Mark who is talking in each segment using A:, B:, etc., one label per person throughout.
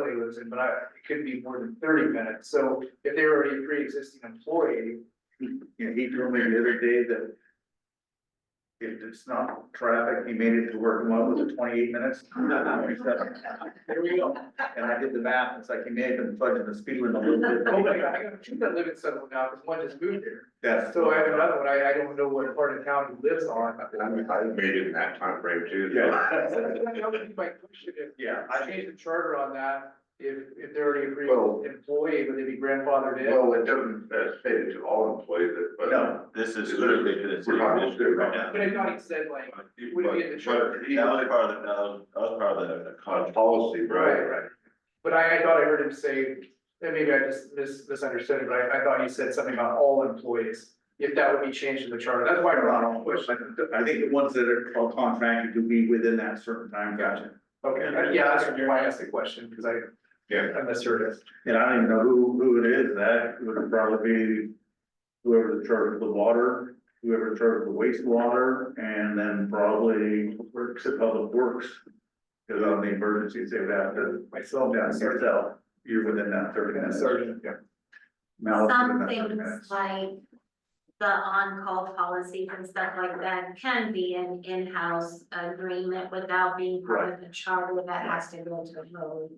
A: goes in, but I, it could be more than thirty minutes, so if they're already a pre-existing employee.
B: Yeah, he told me the other day that. If it's not traffic, he made it to work in what was it, twenty-eight minutes? There we go. And I did the math, it's like he may have been fudging the speed limit a little bit.
A: Oh my God, I got two that live in Sutherland now, because one just moved there,
B: That's
A: so I have another one, I, I don't know what part of town he lives on.
C: I mean, I made it in that timeframe too. so-
B: Yeah.
A: So That would be my question, if
B: Yeah,
A: I
B: I
A: change the charter on that, if, if they're already a
C: Well-
A: pre-existing employee, would they be grandfathered in?
C: Well, it doesn't uh, state it to all employees, but.
B: No.
D: This is literally to the city
C: We're not gonna do
D: administrator
C: it right
D: right
C: now.
D: now.
A: But I thought he said like,
C: But-
A: Would be in the charter.
C: but
D: That
C: he-
D: was part of the, that was- that was part of the- the
C: On
D: contract.
C: policy, right?
A: right, but I, I thought I heard him say, and maybe I just mis- misunderstood it, but I, I thought he said something about all employees. If that would be changed in the charter, that's why I brought on the question.
B: I think the ones that are all contracted to be within that certain time. Gotcha.
A: Okay, uh, yeah, that's why I asked the question, because I,
C: Yeah.
A: I misheard it.
B: And I don't even know who, who it is, that would probably be whoever the charge of the water, whoever the charge of the wastewater, and then probably works at Public Works. Cause on the emergencies, they would have to, myself down yourself, you're within that thirty minutes.
A: Sergeant, yeah.
B: Malice within
E: Some
B: that 30
E: things
B: minutes.
E: like the on-call policies and stuff like that can be an in-house agreement without being part of the charter that has to go to vote.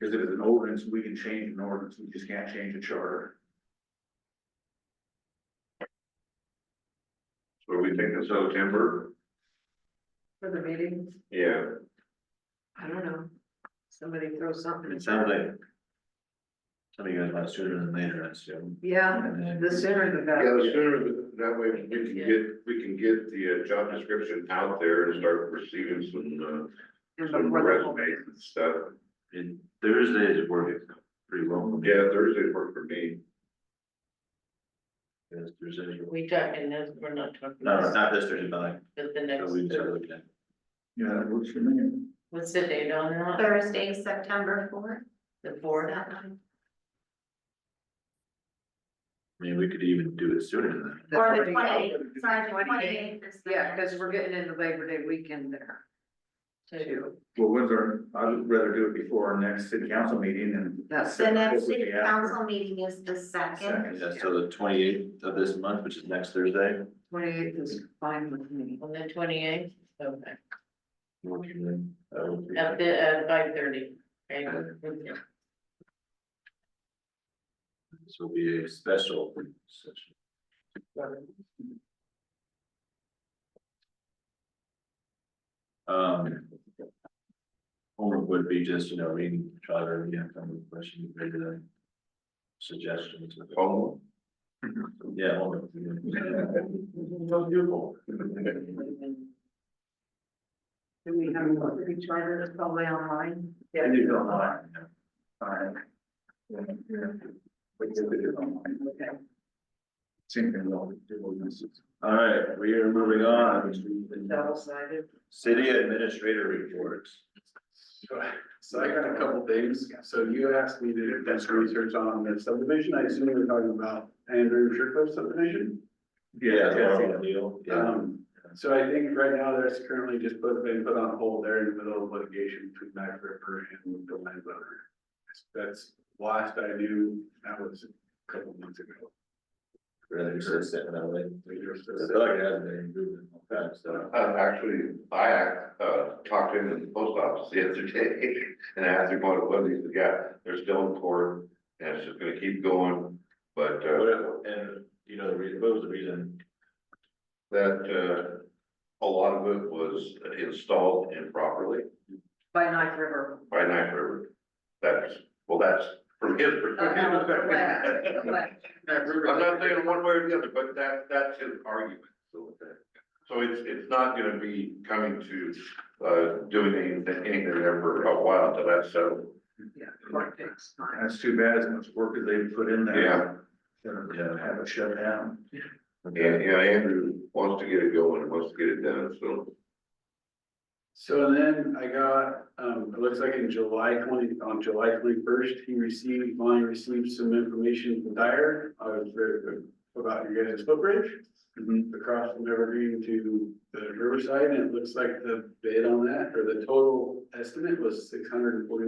B: Cause if it's an ordinance, we can change an ordinance, we just can't change a charter.
C: So we think it's so timber,
F: For the meeting,
C: yeah.
F: I don't know, somebody throw something.
D: It sounds like. Some of you guys want sooner than later, I assume.
A: Um,
F: Yeah, the sooner the
C: Yeah,
F: better.
C: the sooner the- that way we can get, we can get the uh, job description out there and start receiving some, uh,
F: And
C: some
F: before the-
C: resumes and stuff.
D: And Thursday is working pretty well. for me,
C: Yeah, Thursday worked for me.
D: because Thursday-
G: We talking this, we're not talking.
D: No, no,
G: this,
D: not this Thursday, but like,
G: But the
D: so we
G: next,
D: started looking at.
B: Yeah, that works for me.
G: what's the date on that?
E: Thursday, September fourth.
G: The fourth?
D: I mean, we could even do it sooner than that.
E: Or the
F: the
E: twenty-eighth,
F: 28th.
E: sorry, twenty-eighth
F: 28th.
E: is the.
F: Yeah, because we're getting into Labor Day weekend there. Too.
B: Well, when's our, I'd rather do it before our next city council meeting and.
F: That's
E: The next
B: Hopefully
E: city
B: after.
E: council meeting is the second.
B: Second.
D: Yeah, so the twenty eighth of this month, which is next Thursday.
F: twenty eighth is fine with me.
G: On the twenty eighth, okay,
D: working, uh, would be-
G: at the, at five thirty. Right,
D: This will be a special session. Um. Homework would be just, you know, reading charter, yeah, come with questions, maybe the suggestions.
C: Homework.
D: Yeah, homework. Don't do homework.
F: Do we have a city charter that's probably online?
B: I do it online. yeah. Fine. Yeah, yeah. We can do it online.
F: Okay.
B: Same thing, we'll do ordinances.
D: All right, we are moving on.
F: Double sided.
D: City administrator reports.
H: So I got a couple things. So you asked me to do this research on the subdivision. I assume you're talking about Andrew Sugarloaf subdivision.
D: Laurel O'Neill, Yeah.
H: Um, so I think right now there's currently just put, been put on hold there in the middle of litigation between Knife River and the landowner. That's last I knew, that was a couple months ago.
D: Really, so it's sitting that way.
H: They were
D: I
H: still
D: feel like it hasn't been improving in a long time, so.
C: Uh, actually, I, uh, talked to him in the post office the other day and I asked him what it was. He said, yeah, they're still in court and it's just gonna keep going. But, uh,
D: What, and you know, the reason, what was the reason?
C: that, uh, a lot of it was installed improperly
F: By Knife River.
C: by Knife River. That's, well, that's from his perspective. I'm not saying one way or the other, but that, that's his argument. So so it's, it's not gonna be coming to, uh, doing anything, anything there for a while till that's settled.
F: Yeah, court dates, fine.
B: That's too bad, as much work as they've put in there.
C: Yeah.
B: They're gonna have it shut down.
C: Yeah, yeah, Andrew wants to get it going, and wants to get it done, so.
H: So then I got, um, it looks like in July twenty, on July twenty-first, he received, Bonnie received some information from Dyer. Uh, for- about your guys' footbridge across from Evergreen to the Riverside, and it looks like the bid on that, or the total estimate was six hundred and forty